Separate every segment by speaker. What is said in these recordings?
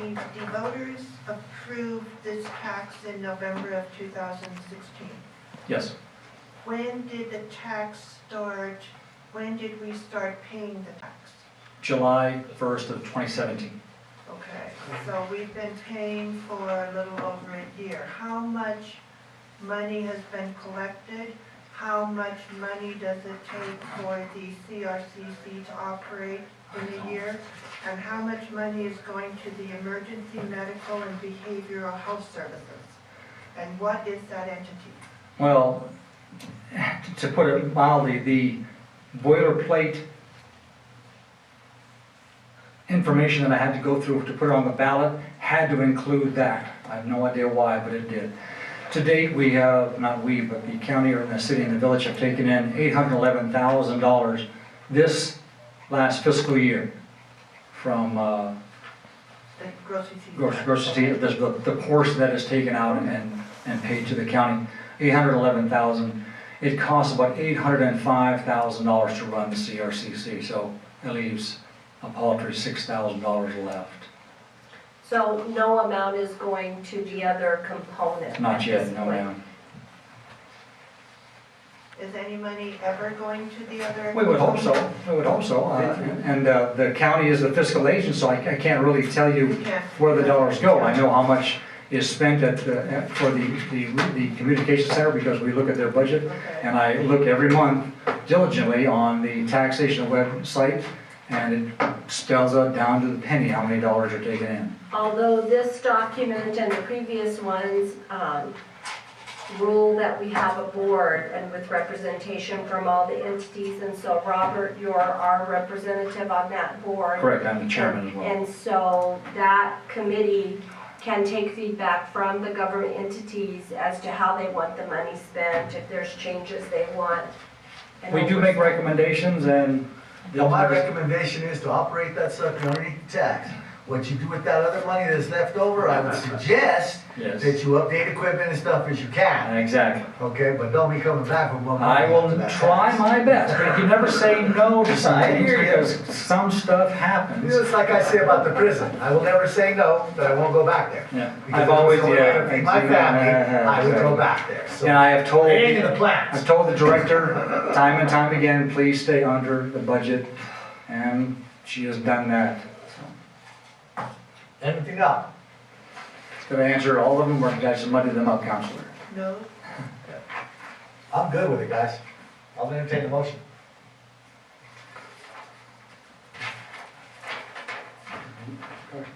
Speaker 1: the voters approved this tax in November of 2016.
Speaker 2: Yes,
Speaker 1: When did the tax start, when did we start paying the tax?
Speaker 2: July 1st of 2017.
Speaker 1: Okay, so we've been paying for a little over a year. How much money has been collected? How much money does it take for the CRCC to operate in a year? And how much money is going to the emergency medical and behavioral health services? And what is that entity?
Speaker 2: Well, to put it mildly, the boilerplate information that I had to go through to put it on the ballot had to include that. I have no idea why, but it did. To date, we have, not we, but the county or the city and the village have taken in $811,000 this last fiscal year from uh,
Speaker 1: The grocery season?
Speaker 2: gross- grossity of this, the, the portion that is taken out and- and, and paid to the county, eight hundred eleven thousand. It costs about eight hundred and five thousand dollars to run the CRCC, so that leaves a paltry six thousand dollars left.
Speaker 3: So no amount is going to the other component?
Speaker 2: Not
Speaker 3: at
Speaker 2: yet,
Speaker 3: this
Speaker 2: no
Speaker 3: point?
Speaker 2: ma'am.
Speaker 1: Is any money ever going to the other?
Speaker 2: We would hope so, we would hope so. Uh, And, uh, the county is the fiscal agent, so I, I can't really tell you
Speaker 1: You can't-
Speaker 2: where the dollars go. I know how much is spent at, the- at- for the, the, the communication center because we look at their budget
Speaker 1: Okay,
Speaker 2: And I look every month diligently on the taxation website, and it spells out down to the penny how many dollars are taken in.
Speaker 3: Although this document and the previous ones um, rule that we have a board and with representation from all the entities, and so Robert, you're our representative on that board.
Speaker 2: Correct, I'm the chairman as well.
Speaker 3: And so that committee can take feedback from the government entities as to how they want the money spent, if there's changes they want. and
Speaker 2: We do make
Speaker 3: oversight.
Speaker 2: recommendations, and
Speaker 4: Now,
Speaker 2: they'll
Speaker 4: my recommendation is to operate that sucker underneath the tax. What you do with that other money that's left over, I would suggest
Speaker 2: Yes,
Speaker 4: that you update equipment and stuff as you can,
Speaker 2: exactly.
Speaker 4: okay? But don't be coming back with one. more
Speaker 2: I will
Speaker 4: after that
Speaker 2: try
Speaker 4: tax.
Speaker 2: my best, but you never say no to something,
Speaker 4: hear you.
Speaker 2: because some stuff happens.
Speaker 4: It's like I say about the prison, I will never say no, but I won't go back there.
Speaker 2: Yeah,
Speaker 4: Because
Speaker 2: I've always,
Speaker 4: if it was the only way to
Speaker 2: yeah.
Speaker 4: feed My family, I would go back there, so.
Speaker 2: And I have told.
Speaker 4: It ain't in the
Speaker 2: I've
Speaker 4: plans.
Speaker 2: told the director time and time again, please stay under the budget, and she has done that.
Speaker 4: Anything up?
Speaker 2: Did I answer all of them, or did I just muddy them up, Counselor?
Speaker 1: no?
Speaker 4: I'm good with it, guys. I'll entertain the motion.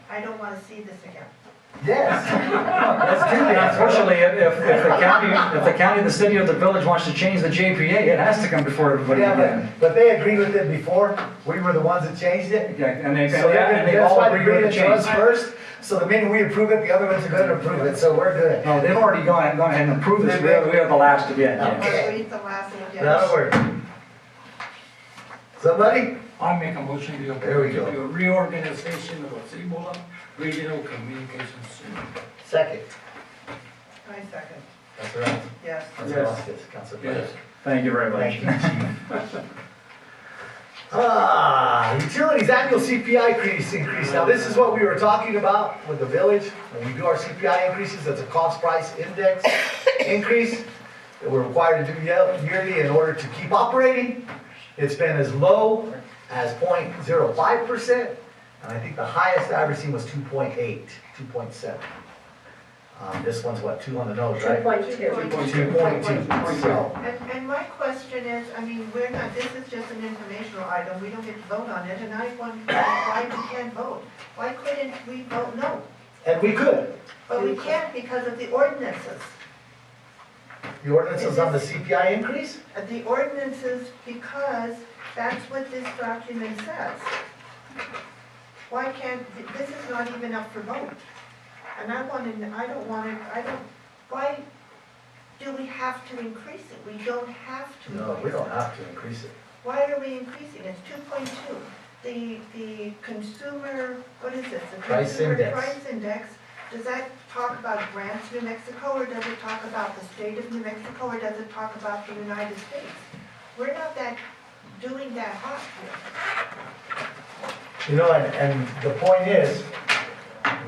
Speaker 1: I don't want to see this again.
Speaker 4: Yes.
Speaker 2: Let's do that. Unfortunately, if, if if the county, if the county, the city, or the village wants to change the JPA, it has to come before everybody
Speaker 4: Yeah,
Speaker 2: again.
Speaker 4: but, but they agreed with it before, we were the ones that changed it.
Speaker 2: Yeah, and they,
Speaker 4: So they're
Speaker 2: and
Speaker 4: gonna,
Speaker 2: they
Speaker 4: that's
Speaker 2: all
Speaker 4: why they
Speaker 2: agree
Speaker 4: agreed
Speaker 2: with
Speaker 4: it
Speaker 2: the
Speaker 4: to us
Speaker 2: change.
Speaker 4: first, so the minute we approve it, the other ones are gonna approve it, so we're good.
Speaker 2: No, they've already gone, gone ahead and approved this, we are, we are the last to get,
Speaker 1: Or
Speaker 2: yeah.
Speaker 4: Okay.
Speaker 1: read the last one again.
Speaker 4: That'll work. Somebody?
Speaker 5: I make a motion to
Speaker 4: There we go.
Speaker 5: approve the reorganization of Cibola Regional Communications Center.
Speaker 4: Second.
Speaker 1: My second,
Speaker 4: That's right.
Speaker 1: yes.
Speaker 4: Council
Speaker 5: Yes.
Speaker 4: Vasquez, Council Perez.
Speaker 2: Thank you very
Speaker 4: Thank
Speaker 2: much.
Speaker 4: you, Chief. Ah, utilities annual CPI increase, increase. Now, this is what we were talking about with the village. When we do our CPI increases, that's a cost price index increase that we're required to do ye- yearly in order to keep operating. It's been as low as 0.05%, and I think the highest I ever seen was 2.8, 2.7. Um, This one's what, two on the nose, right?
Speaker 3: 2.2.
Speaker 4: 2.2, so.
Speaker 1: And, and my question is, I mean, we're not, this is just an informational item, we don't get to vote on it, and I wonder why we can't vote? Why couldn't we vote no?
Speaker 4: And we could.
Speaker 1: But we can't because of the ordinances.
Speaker 4: The ordinance is on the CPI increase?
Speaker 1: Uh, The ordinances, because that's what this document says. Why can't, th- this is not even up for vote. And I want to, I don't want to, I don't, why do we have to increase it? We don't have to
Speaker 4: No, we
Speaker 1: increase
Speaker 4: don't
Speaker 1: it.
Speaker 4: have to increase it.
Speaker 1: Why are we increasing? It's two point two. The, the consumer, what is this? The
Speaker 4: Price
Speaker 1: consumer
Speaker 4: index.
Speaker 1: Price index, does that talk about grants New Mexico, or does it talk about the state of New Mexico, or does it talk about the United States? We're not that, doing that hot here.
Speaker 4: You know, and, and the point is,